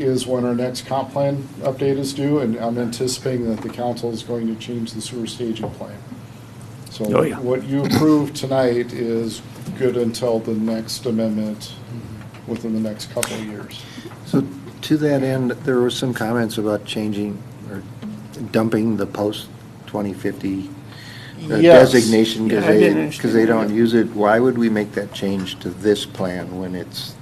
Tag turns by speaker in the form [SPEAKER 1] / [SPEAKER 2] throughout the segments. [SPEAKER 1] is when our next comp plan update is due, and I'm anticipating that the council is going to change the sewer staging plan. So
[SPEAKER 2] Oh, yeah.
[SPEAKER 1] what you approve tonight is good until the next amendment within the next couple of years.
[SPEAKER 3] So to that end, there were some comments about changing or dumping the post-2050
[SPEAKER 1] Yes.
[SPEAKER 3] uh, designation
[SPEAKER 2] Yeah, I
[SPEAKER 3] because
[SPEAKER 2] didn't
[SPEAKER 3] they,
[SPEAKER 2] understand
[SPEAKER 3] because they
[SPEAKER 2] that.
[SPEAKER 3] don't use it. Why would we make that change to this plan when it's,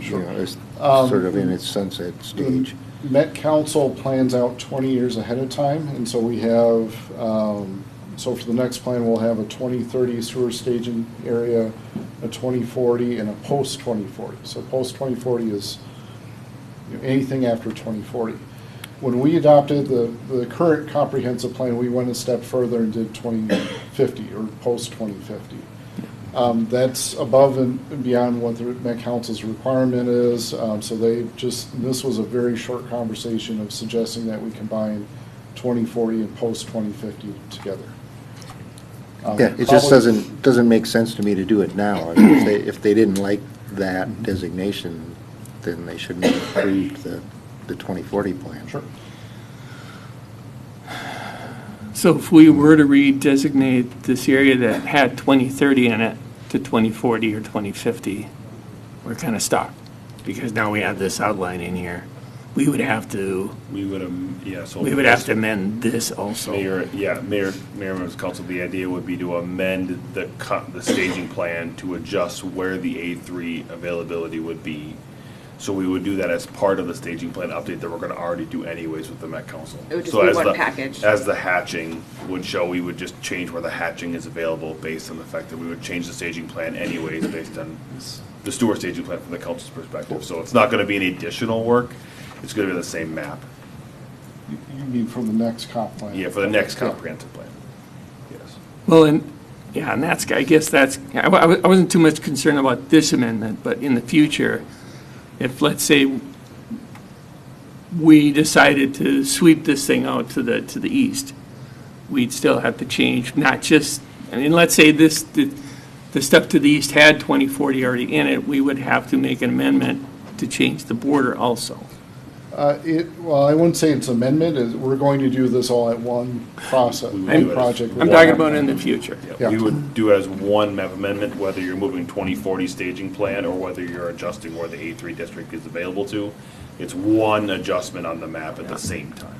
[SPEAKER 3] you
[SPEAKER 1] Sure.
[SPEAKER 3] know, it's
[SPEAKER 1] Um, Mm,
[SPEAKER 3] sort of in its sunset stage?
[SPEAKER 1] Met Council plans out 20 years ahead of time, and so we have, um, so for the next plan, we'll have a 2030 sewer staging area, a 2040, and a post-2040. So post-2040 is you know, anything after 2040. When we adopted the, the current comprehensive plan, we went a step further and did 2050, or post-2050. Um, That's above and beyond what the Met Council's requirement is, um, so they just, this was a very short conversation of suggesting that we combine 2040 and post-2050 together. Um,
[SPEAKER 3] Yeah, it just
[SPEAKER 1] probably-
[SPEAKER 3] doesn't, doesn't make sense to me to do it now. I mean, If they, if they didn't like that designation, then they shouldn't have approved the, the 2040 plan.
[SPEAKER 1] Sure.
[SPEAKER 2] So if we were to redesignate this area that had 2030 in it to 2040 or 2050, we're kind of stuck, because now we have this outline in here. We would have to,
[SPEAKER 4] We would, um, yeah, so.
[SPEAKER 2] we would have to amend this also.
[SPEAKER 4] Mayor, yeah, Mayor, Mayor, members of council, the idea would be to amend the co- the staging plan to adjust where the A three availability would be. So we would do that as part of the staging plan update that we're gonna already do anyways with the Met Council.
[SPEAKER 5] It would just
[SPEAKER 4] So
[SPEAKER 5] be
[SPEAKER 4] as
[SPEAKER 5] one
[SPEAKER 4] the-
[SPEAKER 5] package.
[SPEAKER 4] As the hatching would show, we would just change where the hatching is available based on the fact that we would change the staging plan anyways based on the sewer staging plan from the council's perspective. So it's not gonna be any additional work, it's gonna be the same map.
[SPEAKER 1] You you mean from the next comp plan?
[SPEAKER 4] Yeah, for the next comprehensive plan. Yes.
[SPEAKER 2] Well, and, yeah, and that's, I guess that's, I wa- I wa- I wasn't too much concerned about this amendment, but in the future, if, let's say, we decided to sweep this thing out to the, to the east, we'd still have to change, not just, I mean, let's say this, the, the stuff to the east had 2040 already in it, we would have to make an amendment to change the border also.
[SPEAKER 1] Uh, It, well, I wouldn't say it's amendment, is we're going to do this all at one process,
[SPEAKER 4] We would
[SPEAKER 1] one
[SPEAKER 4] do it.
[SPEAKER 1] project.
[SPEAKER 2] I'm talking about in the future.
[SPEAKER 1] Yeah.
[SPEAKER 4] Yeah, we would do as one map amendment, whether you're moving 2040 staging plan or whether you're adjusting where the A3 district is available to. It's one adjustment on the map at the same time.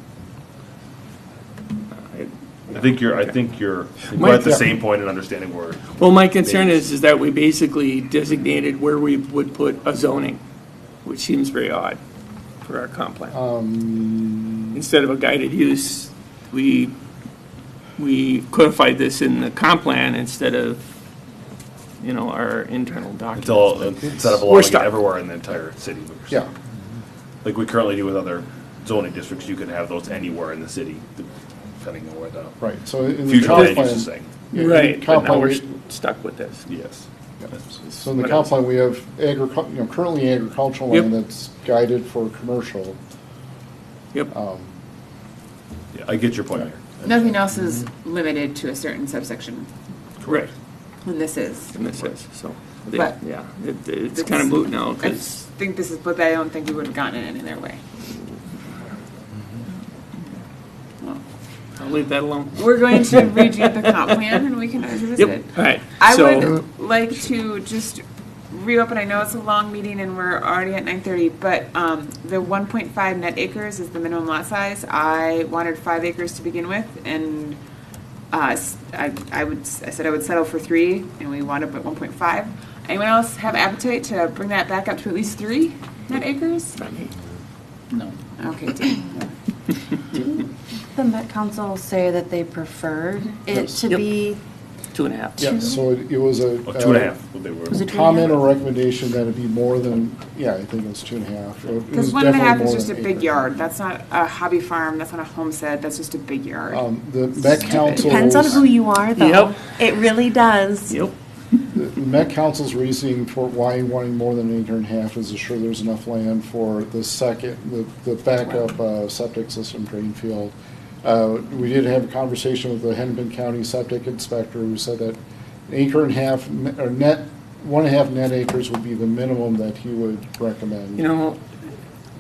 [SPEAKER 4] I think you're, I think you're, we're at the
[SPEAKER 1] Yeah.
[SPEAKER 4] same point in understanding where,
[SPEAKER 2] Well, my concern is, is that we basically designated where we would put a zoning, which seems very odd for our comp plan.
[SPEAKER 1] Um,
[SPEAKER 2] Instead of a guided use, we, we codified this in the comp plan instead of, you know, our internal
[SPEAKER 4] it's
[SPEAKER 2] document.
[SPEAKER 4] all, instead of
[SPEAKER 2] We're
[SPEAKER 4] allowing it
[SPEAKER 2] stuck.
[SPEAKER 4] everywhere in the entire city.
[SPEAKER 1] Yeah,
[SPEAKER 4] Like we currently do with other zoning districts, you can have those anywhere in the city, depending on where the
[SPEAKER 1] right, so in the
[SPEAKER 4] future
[SPEAKER 1] comp
[SPEAKER 4] land use is
[SPEAKER 1] plan.
[SPEAKER 4] saying.
[SPEAKER 1] yeah, in
[SPEAKER 2] Right, but
[SPEAKER 1] comp
[SPEAKER 2] now
[SPEAKER 1] plan,
[SPEAKER 2] we're
[SPEAKER 1] we-
[SPEAKER 2] stuck with this.
[SPEAKER 4] Yes.
[SPEAKER 1] So in the
[SPEAKER 2] What
[SPEAKER 1] comp
[SPEAKER 2] else?
[SPEAKER 1] plan, we have agricul, you know, currently agricultural
[SPEAKER 2] Yep.
[SPEAKER 1] land that's guided for commercial. Oh.
[SPEAKER 2] Yep,
[SPEAKER 4] Yeah, I get your point there.
[SPEAKER 5] Nothing else is limited to a certain subsection,
[SPEAKER 2] correct,
[SPEAKER 5] and this is.
[SPEAKER 2] and this is, so,
[SPEAKER 5] Right.
[SPEAKER 2] yeah, it- it's kind of moot now,
[SPEAKER 5] I
[SPEAKER 2] because.
[SPEAKER 5] think this is, but I don't think we would have gotten it any other way. Well,
[SPEAKER 2] I'll leave that alone.
[SPEAKER 5] We're going to redo the comp plan, and we can revisit it.
[SPEAKER 2] All right.
[SPEAKER 5] I
[SPEAKER 2] so-
[SPEAKER 5] would like to just reopen, I know it's a long meeting and we're already at nine thirty, but, um, the one point five net acres is the minimum lot size. I wanted five acres to begin with and, uh, s- I, I would, s- I said I would settle for three and we wound up at one point five. Anyone else have appetite to bring that back up to at least three net acres? Okay, Dan.
[SPEAKER 6] The Met Council say that they preferred it
[SPEAKER 1] Yes.
[SPEAKER 6] to
[SPEAKER 2] Yep.
[SPEAKER 6] be,
[SPEAKER 2] Two and a half.
[SPEAKER 1] Yeah, so it it was a.
[SPEAKER 4] Oh, two and a half, what they were.
[SPEAKER 6] Was
[SPEAKER 1] a
[SPEAKER 6] it two and a
[SPEAKER 1] Comment
[SPEAKER 6] half?
[SPEAKER 1] or recommendation that it be more than, yeah, I think it was two and a half. It
[SPEAKER 5] Cause
[SPEAKER 1] was
[SPEAKER 5] one and
[SPEAKER 1] definitely
[SPEAKER 5] a half is
[SPEAKER 1] more
[SPEAKER 5] just a
[SPEAKER 1] than
[SPEAKER 5] big
[SPEAKER 1] acre.
[SPEAKER 5] yard. That's not a hobby farm. That's not a homestead. That's just a big yard.
[SPEAKER 1] Um, The Met Council.
[SPEAKER 6] depends on who you are, though.
[SPEAKER 2] Yep.
[SPEAKER 6] It really does.
[SPEAKER 2] Yep.
[SPEAKER 1] The Met Council's reasoning for why wanting more than an acre and a half is to ensure there's enough land for the second, the, the backup uh, septic system drain field. Uh, We did have a conversation with the Hennepin County Septic Inspector who said that an acre and a half, ne- or net, one and a half net acres would be the minimum that he would recommend.
[SPEAKER 2] You know,